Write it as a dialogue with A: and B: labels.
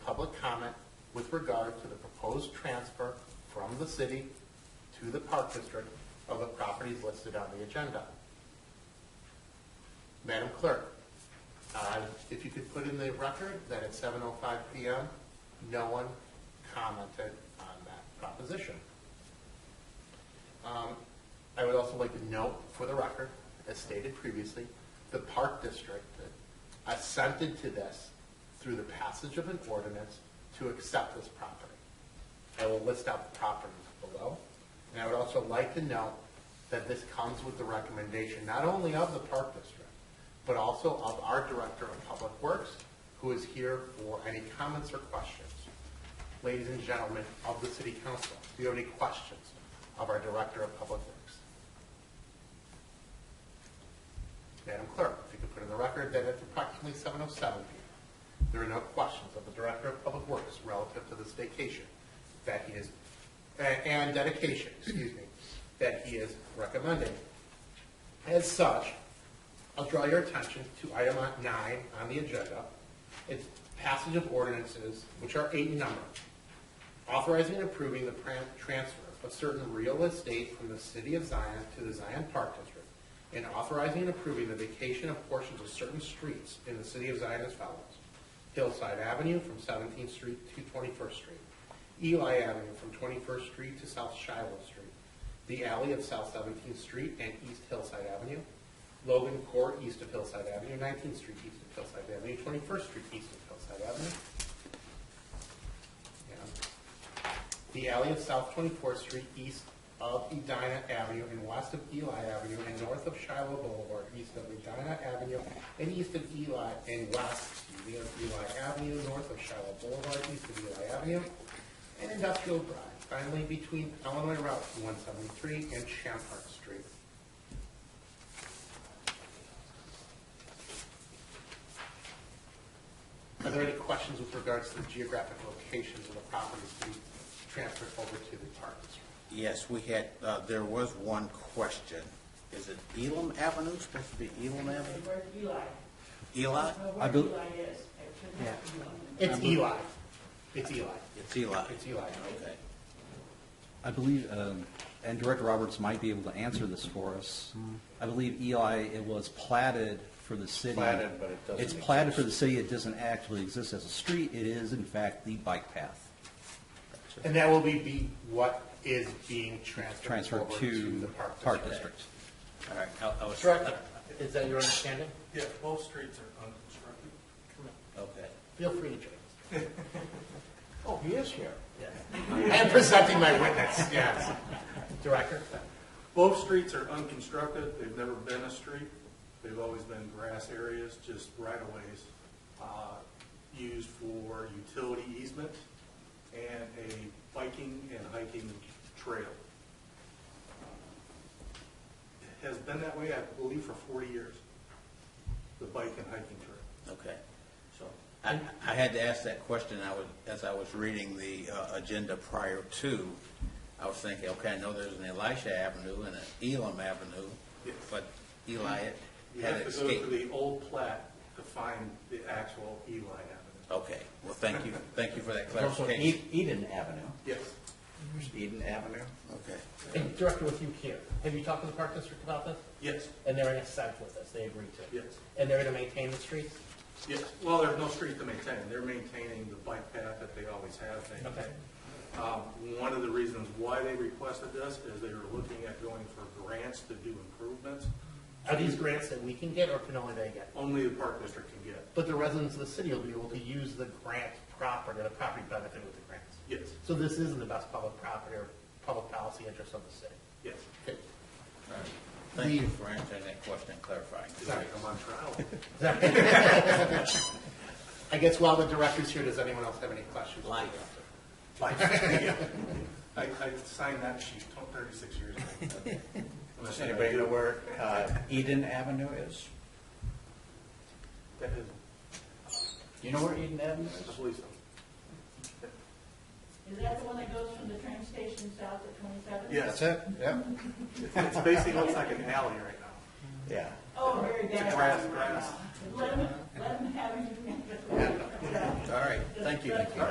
A: public comment with regard to the proposed transfer from the city to the Park District of the properties listed on the agenda. Madam Clerk, uh, if you could put in the record that at 7:05 PM, no one commented on that proposition. Um, I would also like to note for the record, as stated previously, the Park District assented to this through the passage of an ordinance to accept this property. I will list out the properties below. And I would also like to note that this comes with the recommendation not only of the Park District, but also of our Director of Public Works, who is here for any comments or questions. Ladies and gentlemen of the City Council, do you have any questions of our Director of Public Works? Madam Clerk, if you could put in the record that it's approximately 7:07 p.m. There are no questions of the Director of Public Works relative to this vacation that he is, a- and dedication, excuse me, that he is recommending. As such, I'll draw your attention to item nine on the agenda. It's passage of ordinances, which are eight in number, authorizing and approving the pran- transfer of certain real estate from the city of Zion to the Zion Park District, and authorizing and approving the vacation of portions of certain streets in the city of Zion as follows. Hillside Avenue from 17th Street to 21st Street, Eli Avenue from 21st Street to South Shiloh Street, the alley of South 17th Street and East Hillside Avenue, Logan Court east of Hillside Avenue, 19th Street east of Hillside Avenue, 21st Street east of Hillside Avenue, and the alley of South 24th Street east of Edina Avenue and west of Eli Avenue and north of Shiloh Boulevard, east of Edina Avenue and east of Eli, and west, excuse me, of Eli Avenue, north of Shiloh Boulevard, east of Eli Avenue, and Industrial Drive, finally between Illinois Route 173 and Champart Street. Are there any questions with regards to the geographic locations of the properties to be transferred over to the park district?
B: Yes, we had, uh, there was one question. Is it Elam Avenue, supposed to be Elam Avenue?
C: Where's Eli?
B: Eli?
C: No,
D: I
C: where
D: bel-
C: Eli is. It should not be Eli.
A: It's Eli. It's Eli.
B: It's Eli.
A: It's Eli.
B: Okay.
D: I believe, um, and Director Roberts might be able to answer this for us. I believe Eli, it was platted for the city.
B: Platted, but it doesn't
D: It's platted for the
B: exist.
D: city, it doesn't actually exist as a street, it is in fact the bike path.
A: And that will be, be what is being transferred
D: Transferred
A: over to
D: to
A: the park district.
D: Park District.
B: All right, I- I was.
A: Director, is that your understanding?
E: Yeah, both streets are unconstructed.
B: Okay.
A: Feel free to join us. Oh, he is here. I am presenting my witness, yes. Director?
E: Both streets are unconstructed, they've never been a street, they've always been grass areas, just right-of-ways, uh, used for utility easement and a biking and hiking trail. It Has been that way, I believe, for forty years, the bike and hiking trail.
B: Okay. So I, I had to ask that question, I was, as I was reading the uh, agenda prior to, I was thinking, okay, I know there's an Elisha Avenue and an Elam Avenue,
E: Yes.
B: but Eli
E: You
B: had
E: have to go to
B: escaped.
E: the old plat to find the actual Eli Avenue.
B: Okay, well, thank you, thank you for that
F: Also
B: clarification.
F: Ed- Eden Avenue.
E: Yes.
F: Eden Avenue.
B: Okay.
G: And Director, with you here, have you talked to the Park District about this?
E: Yes,
G: And they're in assent with this, they agree to?
E: Yes.
G: And they're going to maintain the streets?
E: yes. Well, there's no street to maintain. They're maintaining the bike path that they always have. maintained.
G: Okay.
E: Um, One of the reasons why they requested this is they were looking at going for grants to do improvements.
G: Are these grants that we can get or can only they get?
E: Only the park district can get.
G: But the residents of the city will be able to use the grant property, the property benefit with the grants.
E: Yes,
G: So this is in the best public property or public policy interest of the city.
E: yes.
G: Okay.
B: All right. Thank you for answering that question and clarifying.
E: Sorry, I'm on trial.
A: I guess while the director's here, does anyone else have any questions?
B: Life.
E: I, I signed that sheet thirty-six years ago. Unless
F: Does anybody know
E: do-
F: where uh, Eden Avenue is?
E: That is,
F: Do you know where Eden Avenue
E: I
F: is?
E: believe so.
C: Is that the one that goes from the train station south at 27?
E: Yes,
A: it, yeah.
E: it's basically looks like an alley right now.
F: Yeah.
C: Oh, very bad.
E: grass,
C: right
E: grass.
C: now. Let them, let them have you.
B: All right, thank you.